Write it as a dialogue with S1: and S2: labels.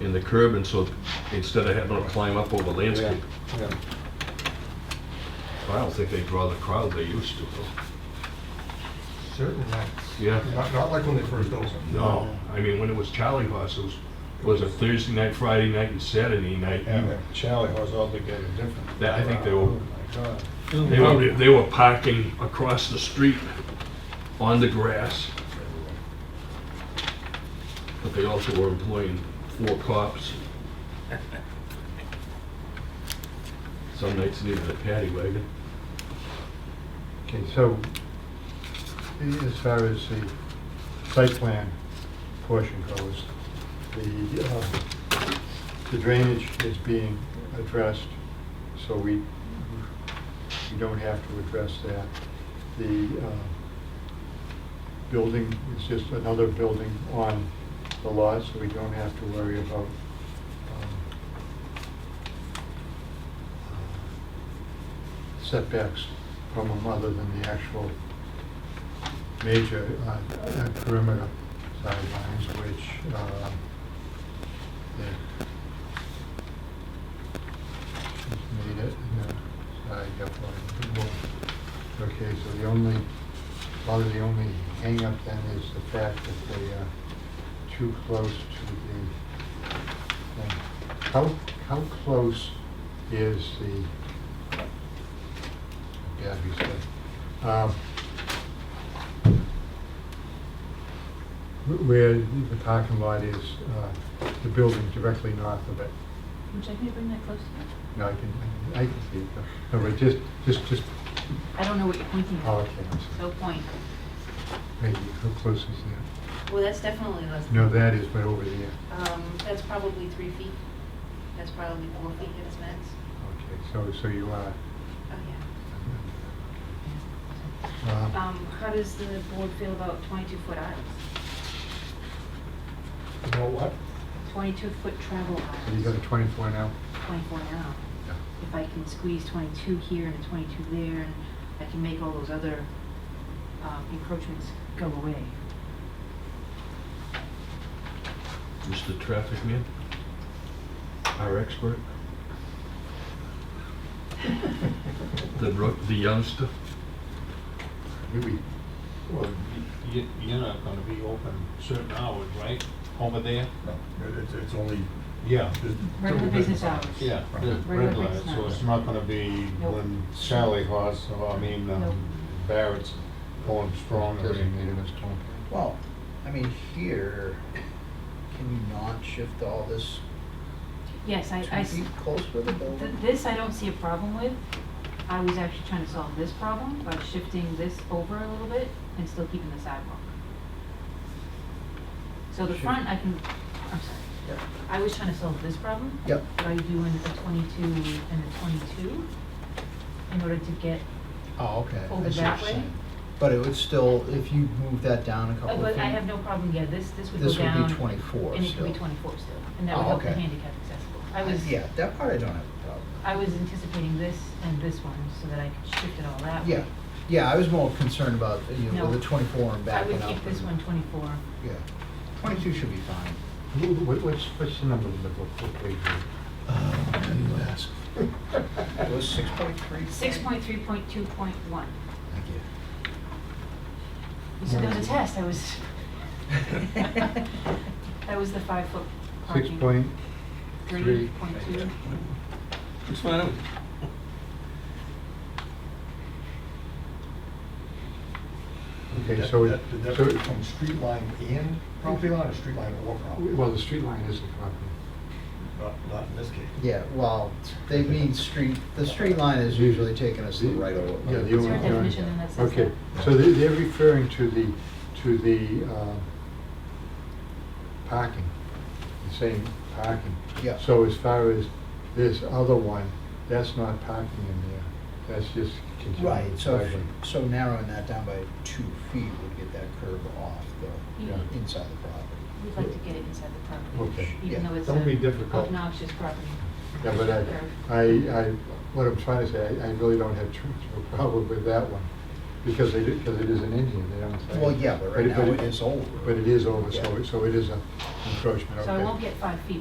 S1: in the curb, and so instead of having to climb up over landscape,
S2: Yeah.
S1: I don't think they draw the crowd they used to. though.
S2: Certainly not.
S1: Yeah.
S2: Not, not like when they first opened.
S1: No, I mean, when it was Charlie Horse, it was, was it Thursday night, Friday night, and Saturday night?
S3: And the Charlie was altogether different.
S1: That- I think they were-
S3: Oh my God.
S1: They were, they were parking across the street on the grass. But they also were employing four cops. Some nights needed a paddy wagon.
S4: Okay, so as far as the site plan portion goes, the, uh, the drainage is being addressed, so we, we don't have to address that. The uh, building is just another building on the lot, so we don't have to worry about um, uh, setbacks from them other than the actual major uh, uh, perimeter sidelines, which uh, they- she's made it. and, uh, Sorry, I got one. more. Okay, so the only, probably the only hang-up then is the fact that they are too close to the thing. How, how close is the, yeah, you said, um, wh- where the parking lot is, uh, the building directly north of it.
S5: Would you like me to bring that closer?
S4: No, I can, I can see it. No, but just, just, just,
S5: I don't know what you're pointing
S4: oh,
S5: at.
S4: okay, I'm sorry.
S5: No point.
S4: Wait, how close is that?
S6: Well, that's definitely less.
S4: No, that is, but over there.
S6: Um, that's probably three feet. That's probably four feet at its max.
S4: Okay, so, so you are.
S6: Oh, yeah.
S4: um,
S7: Um, how does the board feel about twenty-two foot aisles?
S3: You know what?
S7: Twenty-two foot travel
S4: So you got a
S7: aisles,
S4: twenty-four now?
S7: twenty-four now.
S4: Yeah.
S7: If I can squeeze twenty-two here and a twenty-two there, and I can make all those other, um, encroachments go away.
S1: Mr. Traffic Man, our expert. The, ro- the youngster.
S4: Maybe,
S3: Well, y- you, you're not gonna be open certain hours, right? Over there?
S2: It- It's, it's only.
S3: Yeah.
S7: Regular business hours.
S3: Yeah,
S2: Right.
S3: the
S7: Regular
S3: red light, so
S7: business.
S3: it's not gonna be
S7: Nope.
S3: when Charlie Horse, or I mean,
S7: Nope.
S3: um, Barrett's going strong or
S4: designated
S3: anything.
S4: as twenty.
S8: Well, I mean, here, can you not shift all this
S7: Yes, I, I
S8: two
S7: s-
S8: feet close with the
S7: th-
S8: building?
S7: this I don't see a problem with. I was actually trying to solve this problem by shifting this over a little bit and still keeping the sidewalk. So the front, I can, I'm sorry.
S8: Yep.
S7: I was trying to solve this problem.
S8: Yep.
S7: By doing a twenty-two and a twenty-two in order to get,
S8: Oh, okay. I
S7: Over
S8: see what
S7: that
S8: you're
S7: way?
S8: saying. But it would still, if you move that down a
S7: uh,
S8: couple of
S7: but I have
S8: feet,
S7: no problem, yeah, this, this would go
S8: Oh, this
S7: down.
S8: would be twenty-four
S7: And it could
S8: still.
S7: be twenty-four still, and that would
S8: Oh,
S7: help the
S8: okay.
S7: handicap accessible. I was,
S8: Yeah, that part I don't have a problem
S7: I was anticipating this and this one, so that I could shift it all that
S8: with.
S7: way.
S8: Yeah, yeah, I was more concerned about, you know,
S7: No.
S8: with the twenty-four and
S7: I
S8: backing
S7: would
S8: up.
S7: keep this
S8: and-
S7: one twenty-four.
S8: Yeah, twenty-two should be fine.
S4: Wh- wh- What's, what's the number in the book? What page is it?
S3: Uh,
S8: Oh, now you ask. It was six point three?
S7: Six point three point two point one.
S8: Thank you.
S7: You said there was a test, I was. That was the five-foot
S4: Six
S7: parking.
S4: point,
S7: Three point two.
S2: It's fine.
S4: okay,
S3: That-
S4: so, it-
S3: that- that-
S4: so,
S3: that From street line in property line or street line or property?
S4: it- well, the street line is the property.
S3: Not, not in this case.
S8: Yeah, well, they mean street, the street line is usually taking us the right over.
S4: Yeah, the
S7: Is there a
S4: only-
S7: definition in that says that?
S4: Okay, so they- they're referring to the, to the uh, parking, the same parking.
S8: Yeah.
S4: So as far as this other one, that's not parking in there, that's just continuing.
S8: Right, so, if-
S4: driveway.
S8: so narrowing that down by two feet would get that curve off the,
S7: You-
S4: Yeah.
S8: inside the property.
S7: We'd like to get it inside the property,
S4: Okay.
S7: even
S8: Yeah.
S7: though it's
S4: Don't be
S7: an
S4: difficult.
S7: obnoxious property.
S4: Yeah, but I, I, I, what I'm trying to say, I- I really don't have too much of a problem with that one, because they, because it is an Indian, they don't say.
S8: Well, yeah, but right now
S4: but
S8: it is over.
S4: But it is over, so,
S8: Yeah.
S4: it- so it is an encroachment, okay.
S7: So I won't get five feet,